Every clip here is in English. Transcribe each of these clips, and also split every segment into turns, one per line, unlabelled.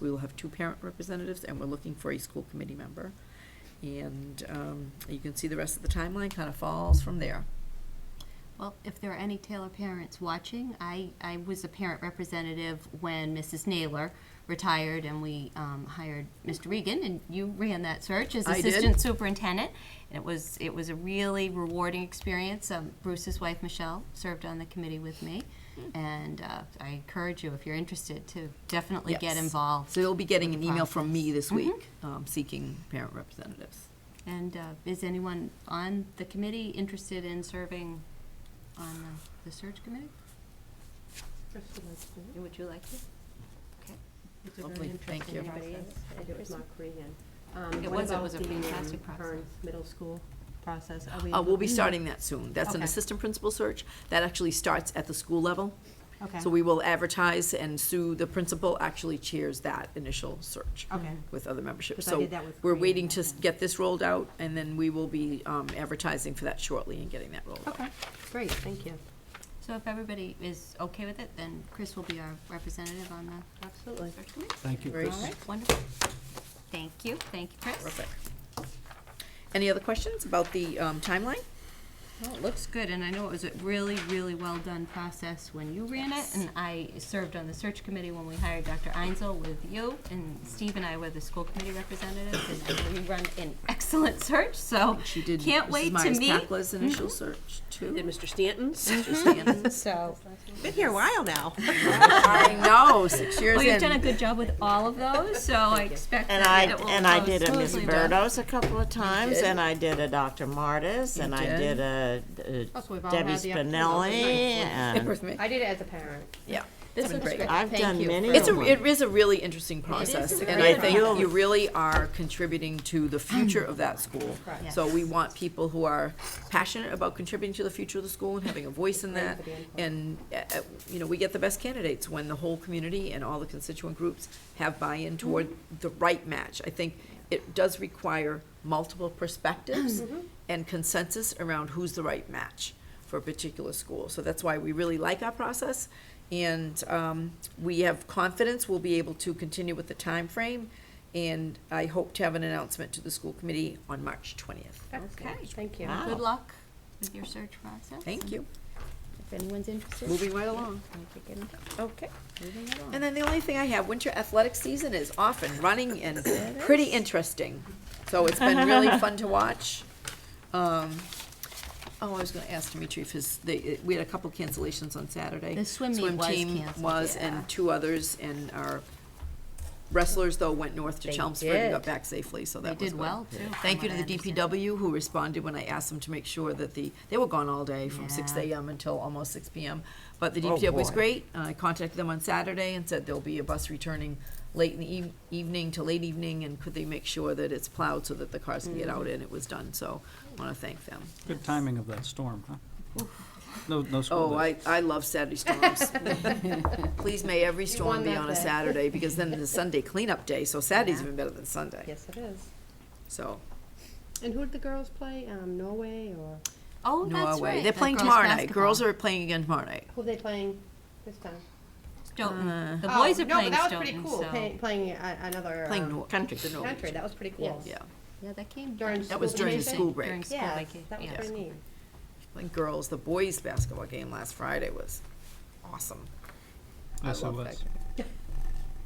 We will have two parent representatives, and we're looking for a school committee member. And um, you can see the rest of the timeline kind of falls from there.
Well, if there are any Taylor parents watching, I, I was a parent representative when Mrs. Naylor retired and we um, hired Mr. Regan and you ran that search as
I did.
assistant superintendent. And it was, it was a really rewarding experience. Um, Bruce's wife, Michelle, served on the committee with me.
Hmm.
And uh, I encourage you, if you're interested, to definitely get
Yes.
involved.
So you'll be getting
with
an
the
email from me this
Mhm.
week
Mm-hmm.
um, seeking parent representatives.
And uh, is anyone on the committee interested in serving on uh, the search committee? Would you like to?
It's a very
Lovely, thank
interesting
you.
process.
Anybody else?
I do, it's not Korean. Um,
It
what
was- it
about
was a
the, um,
fantastic process.
Hearn's Middle School process. Are
Uh, We'll be
looking-
starting that soon. That's an
Okay.
assistant principal search. That actually starts at the school level.
Okay,
So we will advertise, and Sue, the principal, actually chairs that initial search
okay.
with other membership.
'Cause I
So
did that with
we're
Korean
waiting
back
to
then.
get this rolled out, and then we will be um, advertising for that shortly and getting that rolled out.
Okay.
Great, thank you.
So if everybody is okay with it, then Chris will be our representative on the
Absolutely.
search committee.
Thank you,
Very
Chris.
All right, wonderful. Thank you, thank you, Chris.
Terrific. Any other questions about the um, timeline?
Well, it looks good, and I know it was a really, really well-done process when you ran it, and I served on the search committee when we hired Dr. Einzel with you, and Steve and I were the school committee representatives, and I know you run an excellent search, so
Oh,
She did
can't
Mrs.
wait to
Myers
meet. Mm-hmm.
Pakla's initial search,
Did
too.
Mr. Stanton's?
So,
Been here a while now.
I know, six years
well, you've done a
in.
good job with all of those, so I expect
And I,
that it will go smoothly.
and I did a Miss
but-
Burdos a couple of times,
did.
and I did a Dr. Martis,
You
and I
did.
did a a
Also, we've all
Debbie
had the opportunity-
Spinelli, and
With me.
I did it as a parent.
Yeah.
This
been
looks
great.
great.
I've
Thank
done
you.
many
It's
of
a,
them.
it is a really interesting process,
a
and
very
I think
interesting
you really are contributing to the future of that school.
Correct.
So we want people who are passionate about contributing to the future of the school and having a voice in
Great
that.
for the input.
And, uh, uh, you know, we get the best candidates when the whole community and all the constituent groups have buy-in toward the right match. I think it does require multiple perspectives and consensus around who's the right match for a particular school. So that's why we really like our process, and um, we have confidence we'll be able to continue with the time frame. And I hope to have an announcement to the school committee on March 20th.
Excellent,
Okay. Ah.
Thank you.
Wow.
Good luck with your search process.
Thank you.
If anyone's interested.
Moving right along. Okay.
Moving right along.
And then the only thing I have, winter athletic season is off and running and pretty interesting. So it's been really fun to watch. Um, Oh, I was gonna ask Dimitri if his, they, uh, we had a couple cancellations on Saturday.
The swim meet was
team
canceled,
was,
yeah.
and two others, and our wrestlers though went north to
They
Chelmsford and got
did.
back safely, so
They
that was
did
good.
well, too. from
Thank you
what
to
I
the
understand.
DPW who responded when I asked them to make sure that the, they were gone all day from six
Yeah.
AM until almost six PM. But the
Oh,
DPW was
boy.
great. I contacted them on Saturday and said there'll be a bus returning late in the eve- evening to late evening and could they make sure that it's plowed so that the cars can get out
Mm.
and it was done, so I wanna thank them.
Good timing of that storm, huh? No, no school
Oh,
day.
I, I love Saturday storms. Please may every storm
won
be
that
on a
bet.
Saturday because then it's Sunday cleanup day, so Saturday's
Yeah.
even better than Sunday,
Yes, it is.
so.
And who did the girls play? Um, Norway or,
Oh, that's
Norway,
right.
they're
the
playing
girls'
tomorrow night.
basketball.
Girls are playing again tomorrow night.
who are they playing this time?
Uh,
Stoughton. The
Oh,
boys are
no, but
playing
that was pretty
Stoughton,
cool,
so.
pay- Playing a- another.
Playing
um,
Nor-
Country.
the Norwich.
Country, that was pretty cool.
Yeah,
Yeah, that came.
During
that was
School
during the
vacation?
school break.
During school
Yeah,
vacation,
that was
yeah.
pretty neat.
Like girls, the boys' basketball game last Friday was awesome. I
Yes, it
love that
was.
game.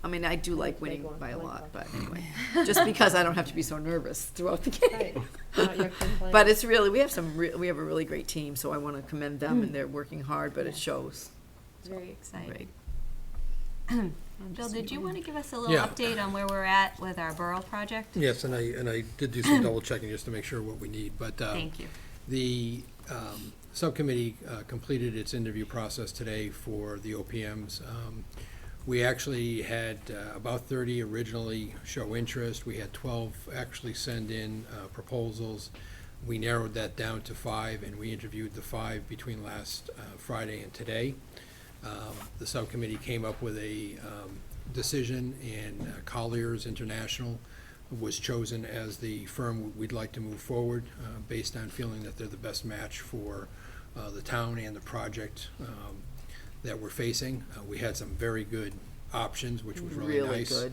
I mean, I do like
Big
winning
one,
by a
like
lot,
that.
but anyway, just because I don't have to be so nervous throughout the
Right.
game.
Not your complaint.
But it's really, we have some, re- we have a really great team, so I want to commend them
Hmm.
and they're working hard, but it shows.
Very exciting.
Great.
Bill, did you want to give us a little
Yeah.
update on where we're at with our borough project?
Yes, and I, and I did do some double checking just to make sure what we need, but. um,
Thank you.
The um, subcommittee uh, completed its interview process today for the OPMs. Um, We actually had uh, about 30 originally show interest. We had 12 actually send in uh, proposals. We narrowed that down to five, and we interviewed the five between last uh, Friday and today. Um, The subcommittee came up with a um, decision, and uh, Colliers International was chosen as the firm we'd like to move forward, uh, based on feeling that they're the best match for uh, the town and the project um, that we're facing. Uh, We had some very good options, which was really nice.
Really good.